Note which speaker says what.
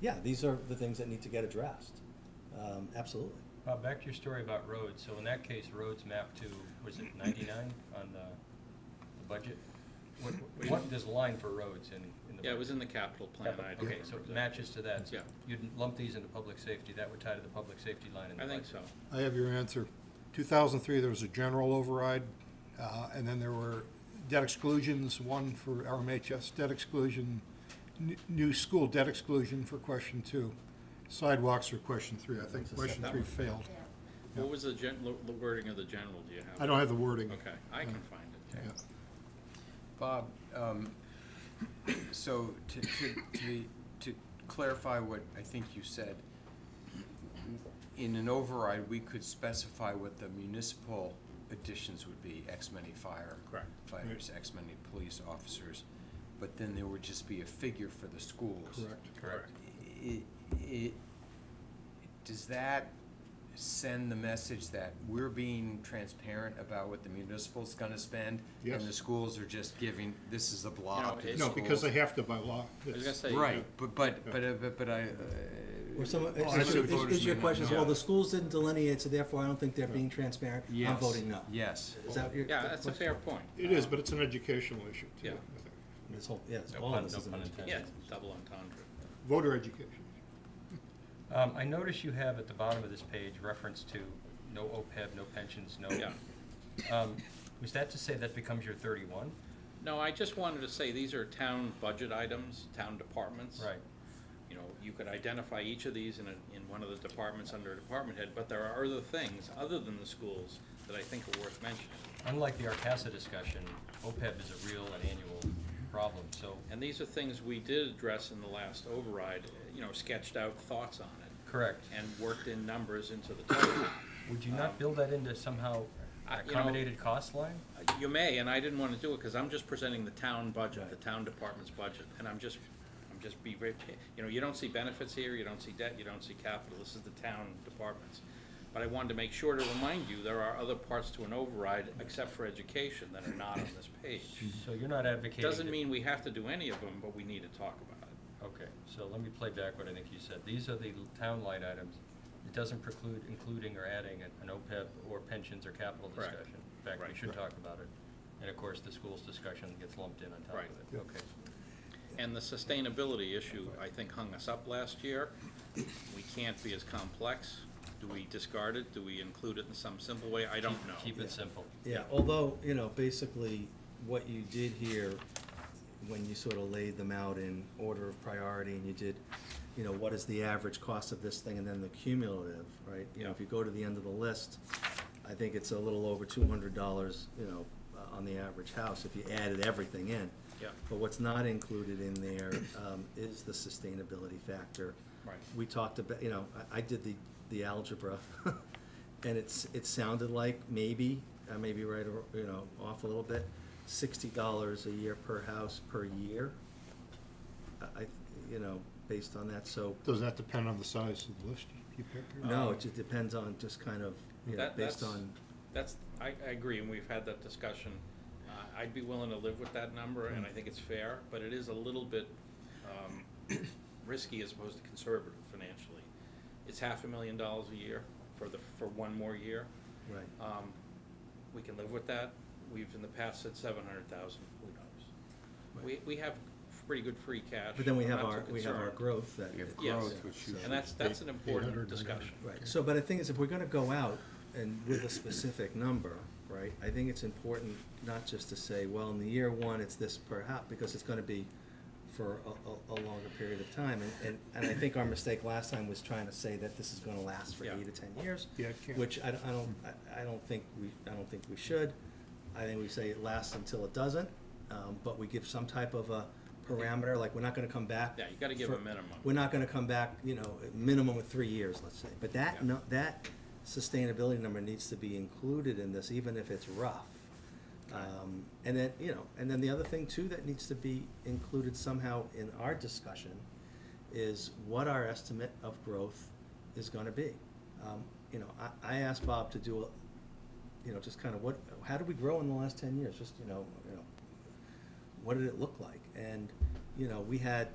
Speaker 1: yeah, these are the things that need to get addressed. Um, absolutely.
Speaker 2: Bob, back to your story about roads. So in that case, roads map to, was it ninety-nine on the, the budget? What,
Speaker 3: We-
Speaker 2: what is the line for roads in, in the?
Speaker 3: Yeah, it was in the capital plan. I don't
Speaker 2: Okay, so it
Speaker 3: remember
Speaker 2: matches to that. So
Speaker 3: Yeah.
Speaker 2: You'd lump these into public safety. That would tie to the public safety line in
Speaker 3: that.
Speaker 2: the
Speaker 3: I think
Speaker 2: budget.
Speaker 3: so.
Speaker 4: I have your answer. 2003, there was a general override, uh, and then there were debt exclusions, one for RMHS debt exclusion, n- new school debt exclusion for question two, sidewalks for question three. I think question three failed.
Speaker 3: What was the gen, lo- the wording of the general, do you have?
Speaker 4: I don't have the wording.
Speaker 3: Okay, I can find it.
Speaker 4: Yeah.
Speaker 5: Bob, um, so to, to, to, be- to clarify what I think you said, in an override, we could specify what the municipal additions would be, X many fire.
Speaker 3: Correct.
Speaker 5: Fighters, X many police officers, but then there would just be a figure for the schools.
Speaker 4: Correct.
Speaker 2: Correct.
Speaker 5: I- i- does that send the message that we're being transparent about what the municipal's gonna spend? And the
Speaker 4: Yes.
Speaker 5: schools are just giving, this is a blob to the
Speaker 3: it's-
Speaker 4: No,
Speaker 5: schools?
Speaker 4: because they have to by law.
Speaker 3: I was gonna say.
Speaker 5: Right, but, but,
Speaker 4: Yeah.
Speaker 5: but, but- but I. uh,
Speaker 1: Or
Speaker 2: Oh,
Speaker 1: some,
Speaker 5: I
Speaker 1: is,
Speaker 5: should
Speaker 1: is-
Speaker 5: have
Speaker 1: is-
Speaker 5: voted
Speaker 1: is your
Speaker 5: no.
Speaker 1: question, well, the schools didn't delineate, so therefore I don't think they're being transparent. I'm
Speaker 5: Yes,
Speaker 1: voting no.
Speaker 5: Yes.
Speaker 1: Is that your?
Speaker 3: Yeah,
Speaker 1: that
Speaker 3: that's a
Speaker 1: question?
Speaker 3: fair point.
Speaker 4: It is, but it's an educational issue, too.
Speaker 3: uh, Yeah.
Speaker 4: I think.
Speaker 1: This whole, yeah, it's
Speaker 2: No
Speaker 1: all
Speaker 2: pun-
Speaker 1: of this
Speaker 2: no
Speaker 1: is an
Speaker 2: pun
Speaker 1: education.
Speaker 3: Yeah, it's double entendre.
Speaker 4: Voter education.
Speaker 2: Um, I notice you have at the bottom of this page reference to no OPEB, no pensions, no.
Speaker 3: Yeah.
Speaker 2: Um, was that to say that becomes your thirty-one?
Speaker 3: No, I just wanted to say, these are town budget items, town departments.
Speaker 2: Right.
Speaker 3: You know, you could identify each of these in a, in one of the departments under a department head, but there are other things, other than the schools, that I think are worth mentioning.
Speaker 2: Unlike the Arcasa discussion, OPEB is a real and annual problem, so,
Speaker 3: And these are things we did address in the last override, you know, sketched out thoughts on it,
Speaker 2: correct.
Speaker 3: and worked in numbers into the total. Uh,
Speaker 2: Would you not build that into somehow
Speaker 3: Um, I- you know-
Speaker 2: accommodated cost line?
Speaker 3: You may, and I didn't want to do it because I'm just presenting the town budget, the town department's budget, and I'm just, I'm just be very, you know, you don't see benefits here, you don't see debt, you don't see capital, this is the town departments. But I wanted to make sure to remind you, there are other parts to an override, except for education, that are not on this page.
Speaker 2: So you're not advocating.
Speaker 3: Doesn't
Speaker 2: that-
Speaker 3: mean we have to do any of them, but we need to talk about it.
Speaker 2: Okay, so let me play back what I think you said. These are the l- town line items. It doesn't preclude including or adding an- an OPEB or pensions or capital
Speaker 3: Correct.
Speaker 2: discussion. In fact, we
Speaker 3: Right.
Speaker 2: should talk about it. And of course, the schools discussion gets lumped in on top
Speaker 3: Right.
Speaker 2: of it. Okay.
Speaker 3: And the sustainability issue, I think, hung us up last year. We can't be as complex. Do we discard it? Do we include it in some simple way? I don't know.
Speaker 2: Keep it simple.
Speaker 1: Yeah, although, you know, basically, what you did here, when you sort of laid them out in order of priority, and you did, you know, what is the average cost of this thing, and then the cumulative, right? You know, if you go to the end of the list, I think it's a little over two hundred dollars, you know, uh, on the average house, if you added everything in.
Speaker 3: Yeah.
Speaker 1: But what's not included in there, um, is the sustainability factor.
Speaker 3: Right.
Speaker 1: We talked about, you know, I, I did the, the algebra, and it's, it sounded like maybe, I may be right, or, you know, off a little bit, sixty dollars a year per house per year. I, I- you know, based on that, so,
Speaker 4: Doesn't that depend on the size of the list you pick? here?
Speaker 1: no, it just depends on just kind of, you know,
Speaker 3: um, That-
Speaker 1: based
Speaker 3: that's-
Speaker 1: on,
Speaker 3: That's, I, I agree, and we've had that discussion. Uh, I'd be willing to live with that number, and I think it's fair, but it is a little bit um, risky as opposed to conservative financially. It's half a million dollars a year for the, for one more year.
Speaker 1: right.
Speaker 3: Um, We can live with that. We've in the past said seven hundred thousand, who knows? We, we have pretty good free cash.
Speaker 1: But then we
Speaker 3: I'm
Speaker 1: have
Speaker 3: not too
Speaker 1: our, we have our
Speaker 3: concerned.
Speaker 1: growth that.
Speaker 5: We have
Speaker 3: Yes.
Speaker 5: growth, which you.
Speaker 3: And that's, that's an important
Speaker 4: 800,
Speaker 3: discussion.
Speaker 1: Right, so, but I think is if we're gonna go out and with a specific number, right, I think it's important not just to say, well, in the year one, it's this per house, because it's gonna be for a, a, a longer period of time, and, and, and I think our mistake last time was trying to say that this is gonna last for
Speaker 3: Yeah.
Speaker 1: eight to ten years.
Speaker 4: Yeah, it can't.
Speaker 1: Which I, don't- I don't, I, I don't think we, I don't think we should, I think we say it lasts until it doesn't, um, but we give some type of a parameter, like, we're not gonna come back.
Speaker 3: Yeah, you gotta give
Speaker 1: for-
Speaker 3: a minimum.
Speaker 1: We're not gonna come back, you know, a minimum of three years, let's say, but that,
Speaker 3: Yeah.
Speaker 1: no, that sustainability number needs to be included in this, even if it's rough. Um, and then, you know, and then the other thing too that needs to be included somehow in our discussion is what our estimate of growth is gonna be. Um, you know, I, I asked Bob to do a, you know, just kind of what, how did we grow in the last ten years, just, you know, you know, what did it look like? And, you know, we had